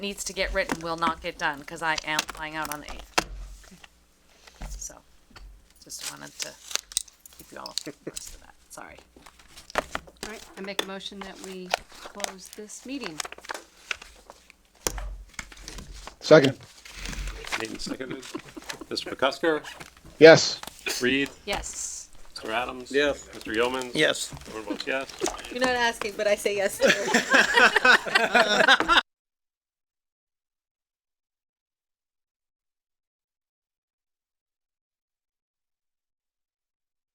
needs to get written will not get done, cause I am flying out on the eighth. So, just wanted to keep you all abreast of that, sorry. All right, I make a motion that we close this meeting. Second. Made and seconded. Mr. McCusker, Yes. Reed, Yes. Mr. Adams. Yes. Mr. Yeomans. Yes. Everyone votes yes. You're not asking, but I say yes.